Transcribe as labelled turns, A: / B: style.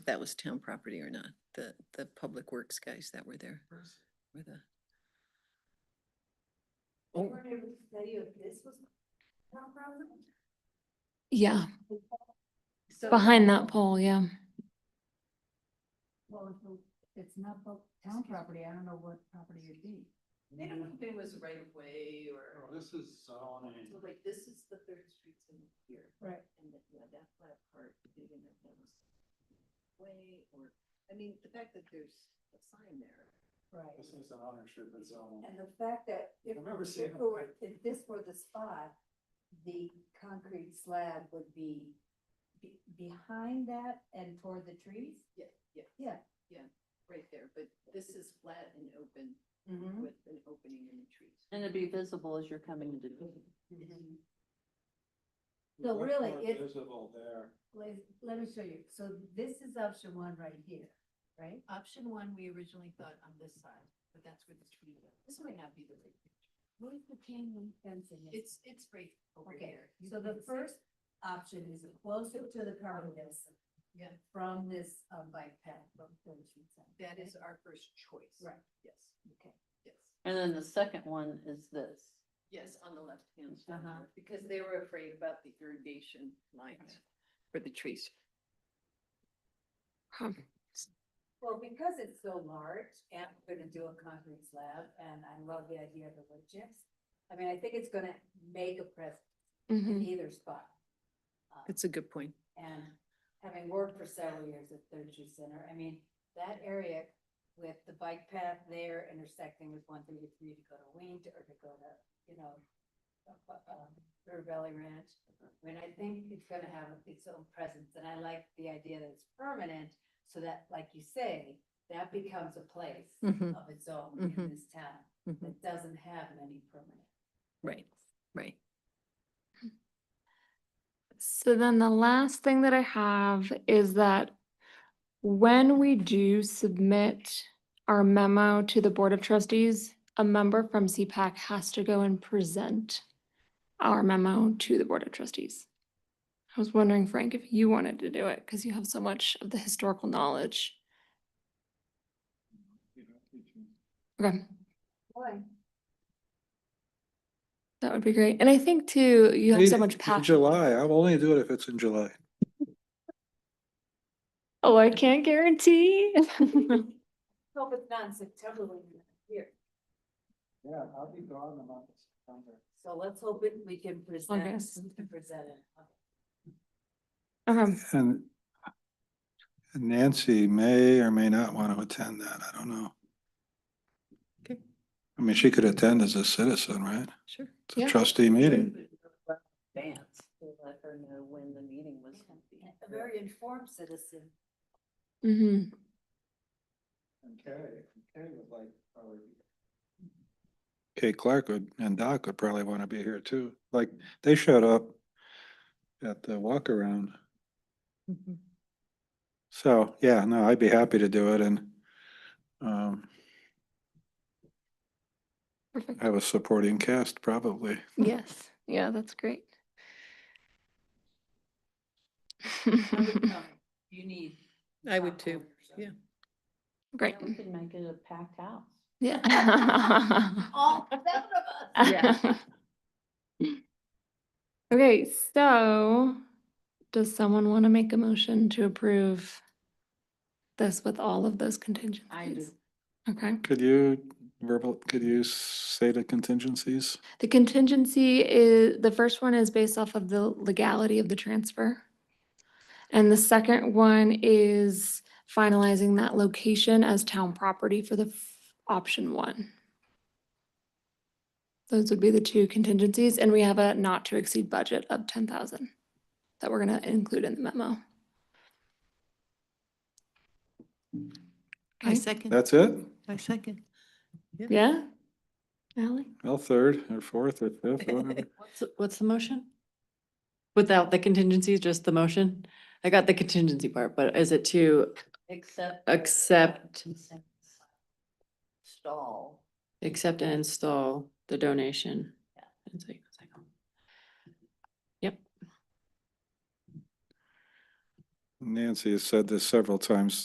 A: if that was town property or not, the, the public works guys that were there. Were the,
B: They
C: Oh.
B: weren't able to tell you if this was town property?
D: Yeah,
B: So-
D: behind that pole, yeah.
C: Well, if the- it's not the town property, I don't know what property it'd be.
B: They don't know if it was right of way or.
E: This is Solomon.
B: So like this is the Third Street in here.
C: Right.
B: And that, yeah, that flat part, they didn't know if that was way or, I mean, the fact that there's a sign there.
C: Right.
E: This is an ownership of zone.
C: And the fact that if,
E: I remember
C: if
E: seeing
C: it
E: it.
C: were- if this were the spot, the concrete slab would be be- behind that and toward the trees?
B: Yeah, yeah,
C: Yeah.
B: right there, but this is flat and open
C: Mm-hmm.
B: with an opening in the trees.
F: And it'd be visible as you're coming into.
C: Mm-hmm. So
E: Much
C: really,
E: more
C: it-
E: Visible there.
C: Let, let me show you. So this is option one right here, right?
B: Option one, we originally thought on this side, but that's where the tree was. This might not be the right picture.
C: What is the chain link fencing?
B: It's, it's right over
C: Okay,
B: here.
C: so the first option is closer to the permanence
B: Oh. Yeah,
C: from this um, bike path from Third Street Center.
B: that is our first choice.
C: Right,
B: Yes,
C: okay.
B: yes,
F: And then the second one is this.
B: yes, on the left hand
F: Uh-huh.
B: side, because they were afraid about the irrigation lines for the trees.
D: Huh.
C: Well, because it's so large and we're gonna do a concrete slab and I love the idea of the wood chips. I mean, I think it's gonna make a presence in
D: Mhm.
C: either spot. Um,
A: that's a good point.
C: And having worked for several years at Third Street Center, I mean, that area with the bike path there intersecting with one thirty-three to go to Wing or to go to, you know, up- up, um, River Valley Ranch. I mean, I think it's gonna have its own presence, and I like the idea that it's permanent, so that, like you say, that becomes a place
A: Mhm,
C: of its own in
A: Mhm.
C: this town
A: mhm.
C: that doesn't have many permanent.
A: Right, right.
D: So then the last thing that I have is that when we do submit our memo to the Board of Trustees, a member from CPAC has to go and present our memo to the Board of Trustees. I was wondering, Frank, if you wanted to do it, because you have so much of the historical knowledge.
E: You know, you can-
D: Okay.
C: Why?
D: That would be great. And I think too, you have so
G: Hey,
D: much
G: in
D: passion.
G: July, I'll only do it if it's in July.
D: Oh, I can't guarantee.
C: Hope it's not in September when you're not here.
E: Yeah, I'll be gone the month of September.
C: So let's hope it, we can present,
D: August.
C: we can present it.
D: Okay.
G: And Nancy may or may not want to attend that. I don't know.
A: Okay.
G: I mean, she could attend as a citizen, right?
A: Sure.
G: It's a
D: Yeah.
G: trustee meeting.
F: Advance, to let her know when the meeting was. gonna be.
C: A very informed citizen.
D: hmm
E: And Carrie, Carrie would like, probably.
G: Kate Clark would, and Doc would probably want to be here too. Like, they showed up at the walk around.
A: Mhm.
G: So, yeah, no, I'd be happy to do it and um,
D: Perfect.
G: have a supporting cast probably.
D: Yes. Yeah, that's great.
F: Um,
B: You need.
A: I would
B: top
A: too,
B: owners of-
A: yeah.
D: Great.
F: We could make it a packed house.
D: Yeah.
C: All seven of us.
F: Yeah.
D: Okay, so does someone want to make a motion to approve this with all of those contingencies?
F: I do.
D: Okay.
G: Could you verbal, could you say the contingencies?
D: The contingency is, the first one is based off of the legality of the transfer. And the second one is finalizing that location as town property for the f- option one. Those would be the two contingencies, and we have a not to exceed budget of ten thousand that we're gonna include in the memo.
A: I
D: Okay.
A: second,
G: That's it?
A: I second.
D: Yeah? Ally?
G: Well, third or fourth or fifth, whatever.
H: What's, what's the motion? Without the contingencies, just the motion? I got the contingency part, but is it to
F: Except.
H: Accept.
F: Stall.
H: accept and install the donation?
F: Yeah.
H: And so you can second.
G: Nancy has said this several times